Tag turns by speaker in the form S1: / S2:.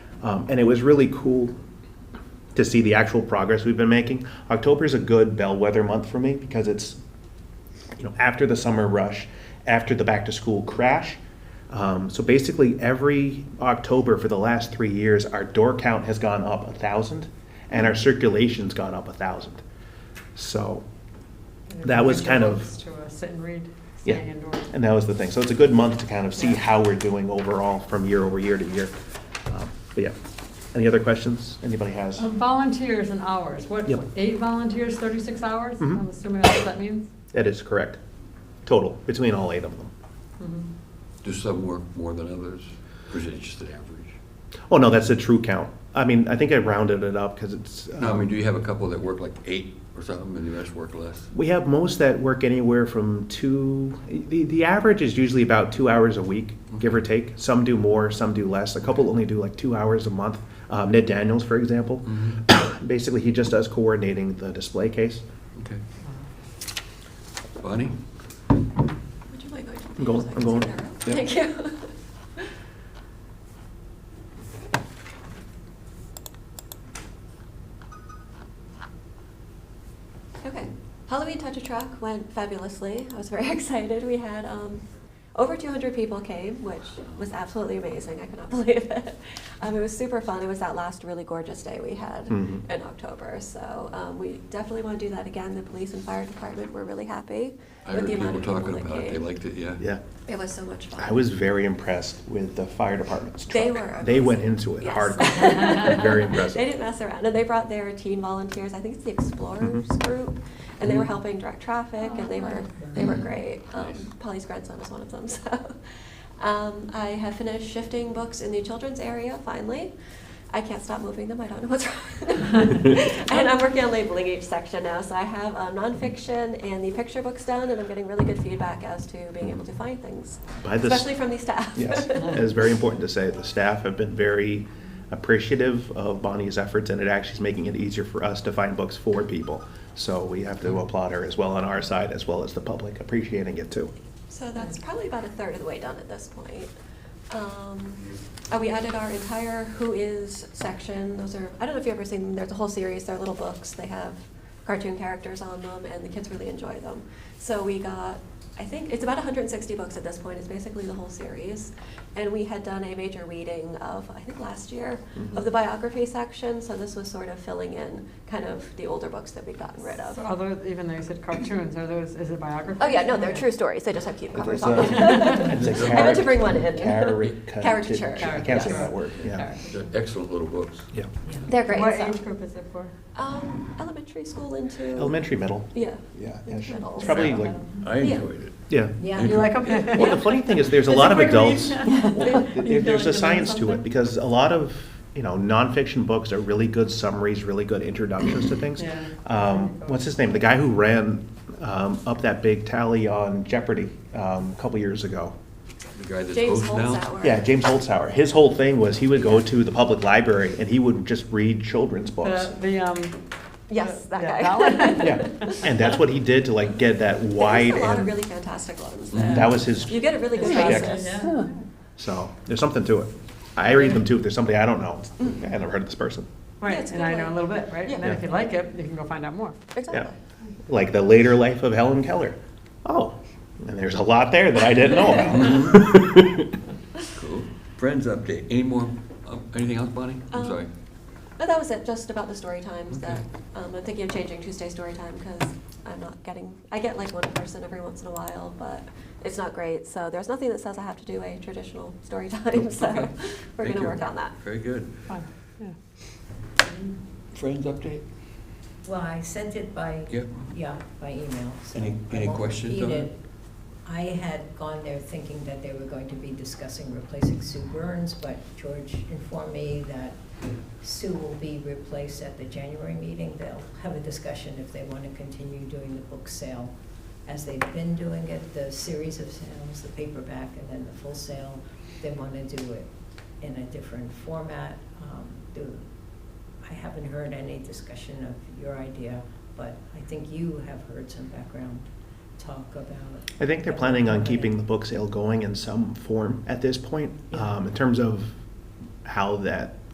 S1: Um, and it was really cool to see the actual progress we've been making. October is a good bellwether month for me because it's, you know, after the summer rush, after the back to school crash. Um, so basically, every October for the last three years, our door count has gone up a thousand, and our circulation's gone up a thousand. So that was kind of.
S2: To us and read,
S1: Yeah.
S2: staying indoors.
S1: And that was the thing. So it's a good month to kind of see
S2: Yeah.
S1: how we're doing overall from year over year to year. Um, But yeah, any other questions anybody has?
S2: Um, Volunteers and hours, what,
S1: Yep.
S2: eight volunteers, 36 hours?
S1: Mhm.
S2: I'm assuming that's what that means?
S1: That is correct. Total, between all eight of them.
S3: Do some work more than others, or is it just an average?
S1: Oh, no, that's a true count. I mean, I think I rounded it up because it's,
S3: No, I mean,
S1: um,
S3: do you have a couple that work like eight or something, and the rest work less?
S1: we have most that work anywhere from two, the, the average is usually about two hours a week, give or take. Some do more, some do less. A couple only do like two hours a month. Um, Ned Daniels, for example,
S3: Mm.
S1: basically he just does coordinating the display case.
S3: Okay. Bonnie?
S4: Would you mind going to the
S1: I'm going-
S4: page
S1: I'm
S4: so I
S1: going.
S4: can see
S1: Yep.
S4: that arrow? Thank you. Okay, Halloween Touch a Truck went fabulously. I was very excited. We had um, over 200 people came, which was absolutely amazing. I could not believe it. Um, it was super fun. It was that last really gorgeous day we had
S1: Mhm.
S4: in October. So um, we definitely want to do that again. The police and fire department were really happy
S3: I
S4: with
S3: heard
S4: the amount
S3: people
S4: of
S3: talking
S4: people that
S3: about it, they
S4: came.
S3: liked it, yeah.
S1: Yeah.
S4: It was so much fun.
S1: I was very impressed with the fire department's truck.
S4: They were
S1: They went
S4: amazing.
S1: into it
S4: Yes.
S1: hardcore. Very impressive.
S4: They didn't mess around, and they brought their teen volunteers. I think it's the Explorers
S1: Mm-hmm.
S4: group, and they were helping direct traffic, and they were they were great. Um,
S3: Nice.
S4: Polly's grandson was one of them. So, um, I have finished shifting books in the children's area finally. I can't stop moving them. I don't know what's wrong. and I'm working on labeling each section now. So I have uh, nonfiction and the picture books done, and I'm getting really good feedback as to being able to find things,
S1: By the s-
S4: especially from the staff.
S1: Yes, it is very important to say the staff have been very appreciative of Bonnie's efforts, and it actually is making it easier for us to find books for people. So we have to applaud her as well on our side, as well as the public appreciating it too.
S4: So that's probably about a third of the way done at this point. Um, uh, we added our entire Who Is section. Those are, I don't know if you've ever seen them, there's a whole series, they're little books. They have cartoon characters on them, and the kids really enjoy them. So we got, I think, it's about 160 books at this point, it's basically the whole series. And we had done a major reading of, I think last year, of the biography section, so this was sort of filling in kind of the older books that we'd gotten rid of.
S2: So are those, even though you said cartoons, are those, is it biography?
S4: Oh yeah, no, they're true stories. They just have cute covers
S1: It's
S4: on
S1: a-
S4: them.
S1: it's a
S4: I meant to bring one in.
S1: caricature.
S4: Caricature.
S1: I can't say
S4: yes.
S1: that word, yeah.
S3: They're excellent little books.
S1: Yeah.
S4: They're great.
S2: What
S4: so-
S2: age group is it for?
S4: Um, elementary school into
S1: Elementary, middle.
S4: Yeah.
S1: Yeah.
S4: Into
S1: ish.
S4: middle.
S1: It's probably like,
S3: I enjoyed it.
S1: yeah.
S2: Yeah. You like them?
S1: Well, the funny thing is, there's a
S2: It's
S1: lot of
S2: quick read.
S1: adults.
S2: You
S1: There-
S2: feel like
S1: There's
S2: you're
S1: a
S2: doing
S1: science to it,
S2: something.
S1: because a lot of, you know, nonfiction books are really good summaries, really good introductions to things.
S2: Yeah.
S1: Um, What's his name, the guy who ran um, up that big tally on Jeopardy um, a couple years ago?
S3: The guy that's
S4: James
S3: host now?
S4: Holzhauer.
S1: Yeah, James Holzhauer, his whole thing was, he would go to the public library and he would just read children's books.
S2: The, the, um.
S4: Yes, that
S2: Yeah,
S4: guy.
S2: that one.
S1: Yeah, and that's what he did to like get that
S4: There's
S1: wide
S4: a lot of really
S1: and,
S4: fantastic ones.
S2: Mhm.
S4: there.
S1: Mm-hmm. that was his,
S4: You get a really good
S1: Yeah.
S4: basis.
S2: Yeah.
S1: so, there's something to it. I read them too, if there's somebody I don't know, I never heard of this person.
S4: Yeah,
S2: Right,
S4: it's a
S2: and
S4: good
S2: I know a
S4: one.
S2: little bit, right? And then
S1: Yeah.
S2: if you like it, you can go find out more.
S1: Yeah,
S4: Exactly.
S1: like the later life of Helen Keller. Oh, and there's a lot there that I didn't know about.
S3: Cool. Friends update, any more, um, anything else, Bonnie? I'm
S4: Um,
S3: sorry.
S4: But that was it, just about the story times
S3: Okay.
S4: that, um, I'm thinking of changing Tuesday story time because I'm not getting, I get like one person every once in a while, but it's not great. So there's nothing that says I have to do a traditional story time, so
S3: Okay.
S4: we're
S3: Thank
S4: gonna
S3: you.
S4: work on that.
S3: Very good.
S2: Fun, yeah.
S3: Friends update?
S5: Well, I sent it by,
S3: Yep.
S5: yeah, by email, so.
S3: Any-
S5: I
S3: any
S5: won't
S3: questions
S5: read
S3: on it?
S5: I had gone there thinking that they were going to be discussing replacing Sue Burns, but George informed me that Sue will be replaced at the January meeting. They'll have a discussion if they want to continue doing the book sale as they've been doing it, the series of sales, the paperback, and then the full sale. They want to do it in a different format. Um, do- I haven't heard any discussion of your idea, but I think you have heard some background talk about.
S1: I think they're planning on keeping the book sale going in some form at this point, um, in terms of how that